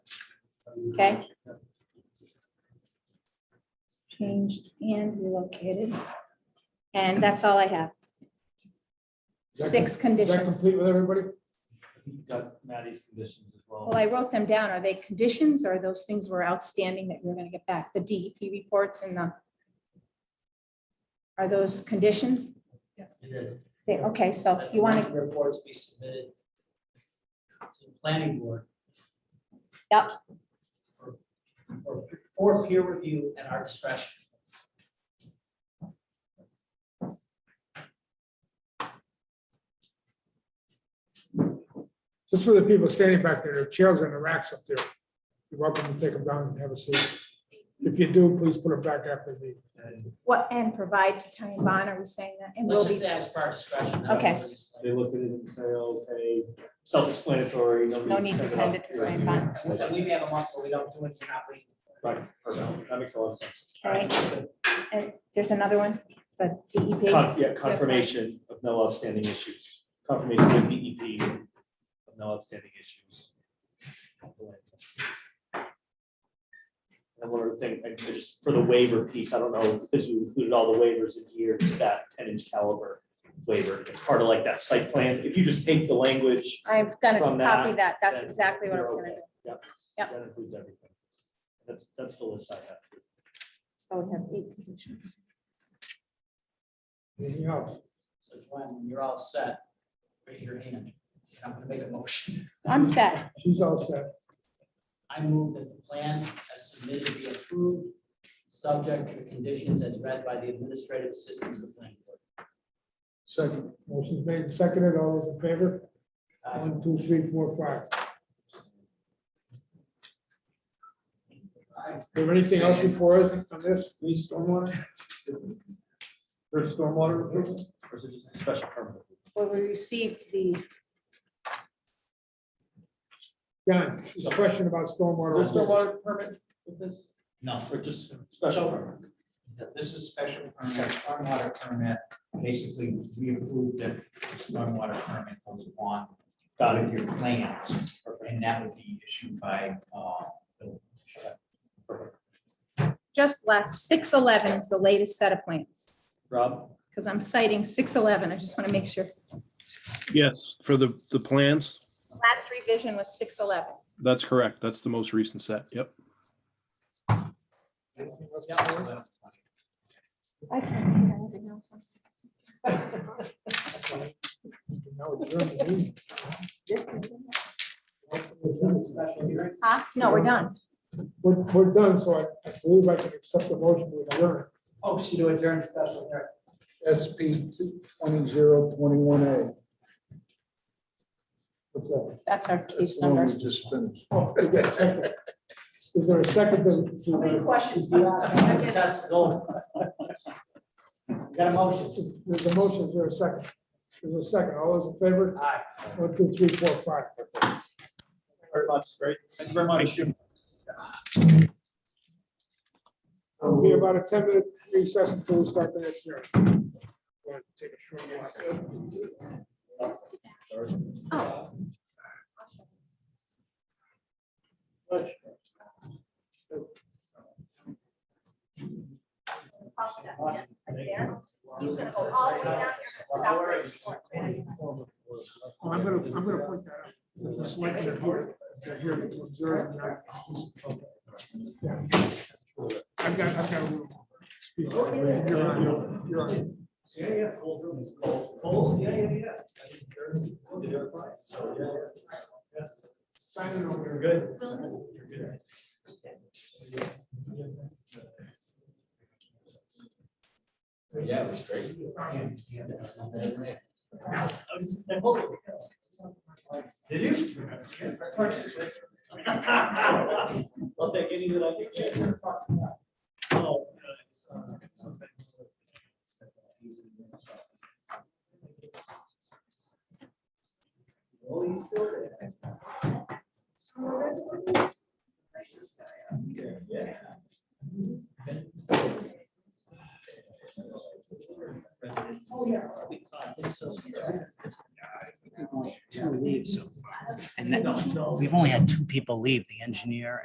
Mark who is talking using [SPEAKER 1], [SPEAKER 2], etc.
[SPEAKER 1] Okay. Changed and relocated. And that's all I have.
[SPEAKER 2] Is that
[SPEAKER 1] Six
[SPEAKER 2] com- Is that
[SPEAKER 1] conditions.
[SPEAKER 2] complete with everybody?
[SPEAKER 3] You've got Maddie's conditions as well.
[SPEAKER 1] Well, I wrote them down. Are they conditions or those things were outstanding that we're gonna get back? The DEP reports and the. Are those conditions?
[SPEAKER 4] And then
[SPEAKER 1] They- Okay, so you want to,
[SPEAKER 4] Reports be submitted to the planning board.
[SPEAKER 1] Yep.
[SPEAKER 4] For- for- For peer review at our discretion.
[SPEAKER 2] Just for the people standing back there, there are chairs and the racks up there. You're welcome to take them down and have a seat. If you do, please put them back after the meeting.
[SPEAKER 3] And
[SPEAKER 1] what, and provide to Ty and Bond, are we saying that? And
[SPEAKER 4] Let's
[SPEAKER 1] will
[SPEAKER 4] just
[SPEAKER 1] be,
[SPEAKER 4] say as per our discretion. not
[SPEAKER 1] Okay.
[SPEAKER 4] release
[SPEAKER 3] They
[SPEAKER 4] later.
[SPEAKER 3] look at it and say, okay, self-explanatory.
[SPEAKER 1] no need to send it to
[SPEAKER 3] off.
[SPEAKER 1] Ty Bond.
[SPEAKER 4] And we may have a month where we don't do it, we're not waiting.
[SPEAKER 3] Right, perfect. That makes a lot of sense.
[SPEAKER 1] Okay, and there's another one, the E DEP.
[SPEAKER 3] Con- Yeah, confirmation of no outstanding issues, confirmation of DEP of no outstanding issues. And one other thing, I just, for the waiver piece, I don't know, because you included all the waivers in here, just that ten inch caliber waiver. It's part of like that site plan. If you just take the language,
[SPEAKER 1] I've got to
[SPEAKER 3] From
[SPEAKER 1] copy
[SPEAKER 3] that,
[SPEAKER 1] that. That's
[SPEAKER 3] then
[SPEAKER 1] exactly what I
[SPEAKER 3] you're
[SPEAKER 1] was gonna do.
[SPEAKER 3] okay. Yep.
[SPEAKER 1] Yep.
[SPEAKER 3] That includes everything. That's, that's the list I have.
[SPEAKER 1] So we have eight conditions.
[SPEAKER 2] Anything else?
[SPEAKER 4] So Joanne, when you're all set, raise your hand. I'm gonna make a motion.
[SPEAKER 1] I'm set.
[SPEAKER 2] She's all set.
[SPEAKER 4] I move that the plan as submitted be approved, subject to the conditions as read by the administrative assistant to the planning board.
[SPEAKER 2] Second, motion's made, and seconded, all those in favor? One, two, three, four, five. Do you have anything else before us on this? We stormwater? For stormwater? approval?
[SPEAKER 3] Or is it just a special permit?
[SPEAKER 1] Well, we received the,
[SPEAKER 2] John, there's a question about stormwater.
[SPEAKER 3] Is there stormwater permit with this?
[SPEAKER 4] No.
[SPEAKER 3] Or just special permit?
[SPEAKER 5] that this is special permit, stormwater permit, basically, we approved the stormwater permit goes along
[SPEAKER 3] Got it.
[SPEAKER 5] with your plans, and that would be issued by, uh, the-
[SPEAKER 1] just last, six eleven is the latest set of plans.
[SPEAKER 3] Rob?
[SPEAKER 1] Because I'm citing six eleven. I just want to make sure.
[SPEAKER 6] Yes, for the, the plans,
[SPEAKER 1] Last revision was six eleven.
[SPEAKER 6] that's correct. That's the most recent set. Yep.
[SPEAKER 4] Yeah.
[SPEAKER 1] I can't think of anything else.
[SPEAKER 2] No, you're in the meeting.
[SPEAKER 4] Special hearing.
[SPEAKER 1] Huh? No, we're done.
[SPEAKER 2] We're, we're done, so I- I believe I can accept the motion to adjourn.
[SPEAKER 4] Oh, she do adjourn special hearing.
[SPEAKER 7] SP twenty zero twenty-one A.
[SPEAKER 2] What's that?
[SPEAKER 1] That's our case
[SPEAKER 7] That's the one
[SPEAKER 1] number.
[SPEAKER 7] we just finished.
[SPEAKER 2] Oh, okay. Is there a second to-
[SPEAKER 4] How many
[SPEAKER 2] to?
[SPEAKER 4] questions do you ask? when the Test is over. We Got a motion?
[SPEAKER 2] There's a motion, is there a second? There's a second, all those in favor?
[SPEAKER 4] Aye.
[SPEAKER 2] One, two, three, four, five.
[SPEAKER 3] Very much, great. Thank you very much.
[SPEAKER 2] It'll be about a ten minute recess until we start the next hearing. We'll Take a short walk.
[SPEAKER 1] Oh. He's gonna go "Oh, all the way down, you're gonna stop right before.
[SPEAKER 2] Oh, I'm gonna, I'm gonna point that out. There's a select that here, that here to observe. that. I've got, I've got a little. speech. You're on, you're- you're on.
[SPEAKER 4] Yeah, yeah. Cold, room is cold. Cold, yeah, yeah, yeah. Signing over. You're good. You're good.
[SPEAKER 5] Yeah, it was great.
[SPEAKER 4] Did you? I'll take any that I can get. Oh, uh, it's, uh, something. Well, he's still there. Nicest guy out here, yeah. Oh, yeah. I think so. Two leaves so far.
[SPEAKER 8] And then, we've only had two people leave, the engineer